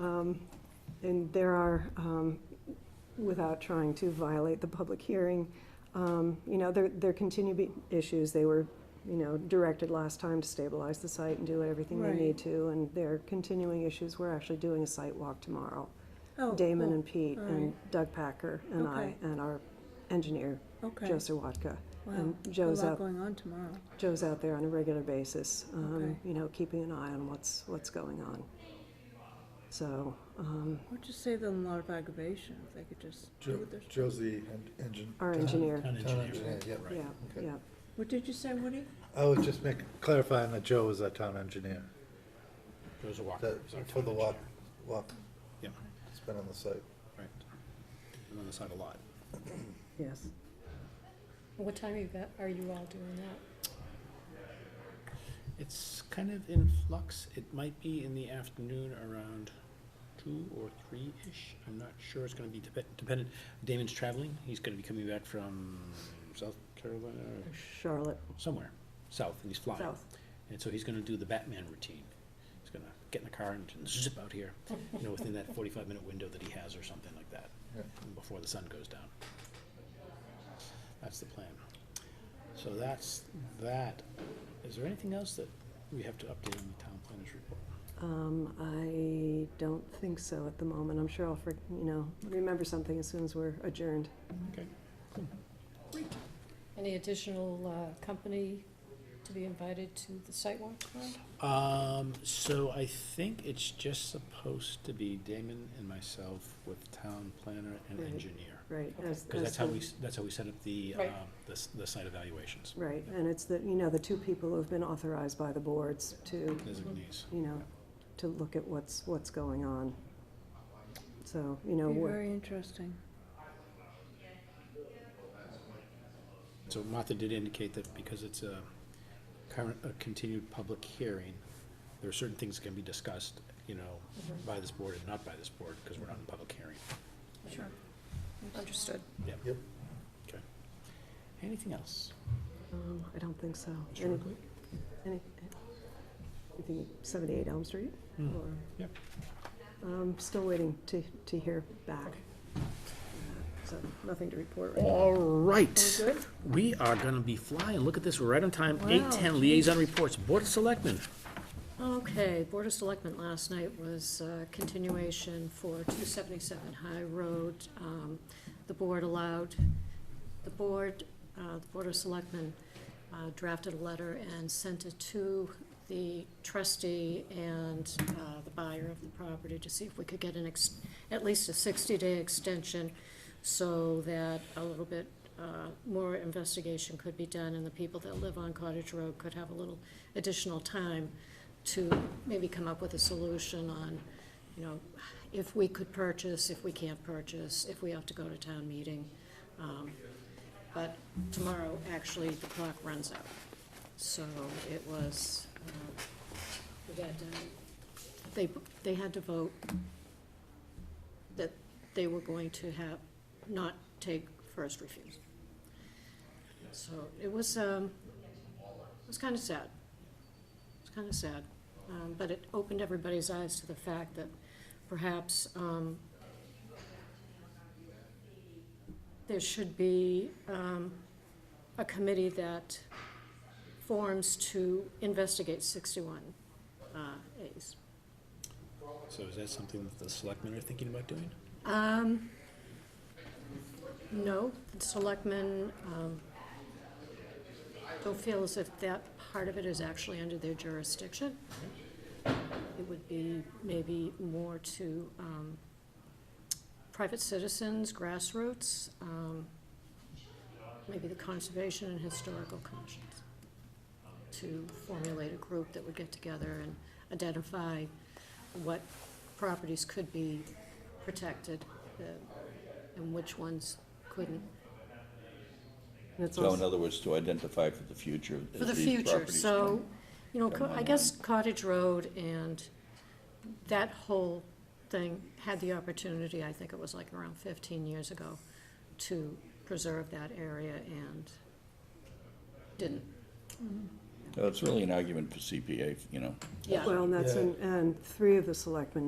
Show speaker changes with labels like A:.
A: Um, And there are, um, without trying to violate the public hearing, um, you know, there, there continue to be issues. They were, you know, directed last time to stabilize the site and do everything they
B: Right.
A: need to. And there are continuing issues. We're actually doing a site walk tomorrow.
B: Oh,
A: Damon
B: cool.
A: and Pete
B: All
A: and Doug Packer and I
B: Okay.
A: and our engineer,
B: Okay.
A: Joe Sawatka.
B: Wow,
A: And
B: a
A: Joe's
B: lot
A: up,
B: going on tomorrow.
A: Joe's out there on a regular basis, um,
B: Okay.
A: you know, keeping an eye on what's, what's going on. So, um,
B: Would just save them a lot of aggravation if they could just do
C: Jo-
B: what they're.
C: Joe's the en- engine.
A: Our
C: town-
A: engineer.
D: Town
C: Town
D: engineer,
C: engineer, yeah.
D: right.
A: yeah,
C: Okay.
A: yeah.
B: What did you say, Woody?
C: I was just making, clarifying that Joe is our town engineer,
D: There's a walk.
C: that,
D: there's our
C: for the
D: town
C: walk,
D: engineer.
C: walk,
D: Yeah,
C: it's been on the site.
D: right. And on the side of the lot.
A: Yes.
E: What time are you, got- are you all doing that?
D: It's kind of in flux. It might be in the afternoon around two or three-ish. I'm not sure. It's gonna be depe- dependent. Damon's traveling. He's gonna be coming back from South Carolina or
A: Charlotte,
D: somewhere, south, and he's flying.
A: south.
D: And so he's gonna do the Batman routine. He's gonna get in the car and zip out here, you know, within that forty-five minute window that he has or something like that,
C: Yeah.
D: before the sun goes down. That's the plan. So that's that. Is there anything else that we have to update on the town planner's report?
A: Um, I don't think so at the moment. I'm sure I'll, for- you know, remember something as soon as we're adjourned.
D: Okay.
E: Any additional uh, company to be invited to the site walk tomorrow?
D: Um, so I think it's just supposed to be Damon and myself with town planner and
A: Right.
D: engineer.
A: Right. as-
D: Cause
A: as
D: that's how
A: the-
D: we, s- that's how we set up the, uh,
E: Right.
D: the, s- the site evaluations,
A: Right, and it's the, you know, the two people who have been authorized by the boards to,
D: designees.
A: you know, to look at what's, what's going on. So, you know,
B: Be
A: we're,
B: very interesting.
D: So Martha did indicate that because it's a current, a continued public hearing, there are certain things that can be discussed, you know, by this board and not by this board, because we're not in public hearing.
E: Sure. Understood.
C: Yep.
D: Okay. Anything else?
A: um, I don't think so.
D: Mr.
A: Any-
D: Ruckley?
A: Any, anything, 78 Elm Street?
D: Hmm.
A: Or-
D: Yep.
A: I'm still waiting to, to hear back. So, nothing to report right now.
D: All right.
A: Good?
D: We are gonna be flying. Look at this, we're right on time. Eight
E: Wow.
D: ten liaison reports, Board of Selectmen.
E: Okay, Board of Selectmen last night was uh, continuation for 277 High Road. Um, The board allowed, the board, uh, the Board of Selectmen uh, drafted a letter and sent it to the trustee and uh, the buyer of the property to see if we could get an, ex- at least a 60-day extension so that a little bit uh, more investigation could be done and the people that live on Cottage Road could have a little additional time to maybe come up with a solution on, you know, if we could purchase, if we can't purchase, if we have to go to town meeting. Um, But tomorrow, actually, the clock runs out. So it was, uh, we got, uh, they, they had to vote that they were going to have, not take first refusal. So it was, um, it was kind of sad. It's kind of sad, um, but it opened everybody's eyes to the fact that perhaps, um, there should be, um, a committee that forms to investigate sixty-one, uh, As.
D: So is that something that the selectmen are thinking about doing?
E: Um, no, the selectmen, um, don't feel as if that part of it is actually under their jurisdiction. It would be maybe more to, um, private citizens, grassroots, um, maybe the Conservation and Historical Commissions to formulate a group that would get together and identify what properties could be protected uh, and which ones couldn't.
A: And it's
F: So in
A: also,
F: other words, to identify for the future.
E: For the
F: as these
E: future,
F: properties
E: so,
F: come-
E: you know,
F: come
E: co- I
F: online.
E: guess Cottage Road and that whole thing had the opportunity, I think it was like around fifteen years ago, to preserve that area and didn't.
F: So It's really an argument for CPA, you know.
E: Yeah.
A: well, and that's,
C: Yeah.
A: and, and three of the selectmen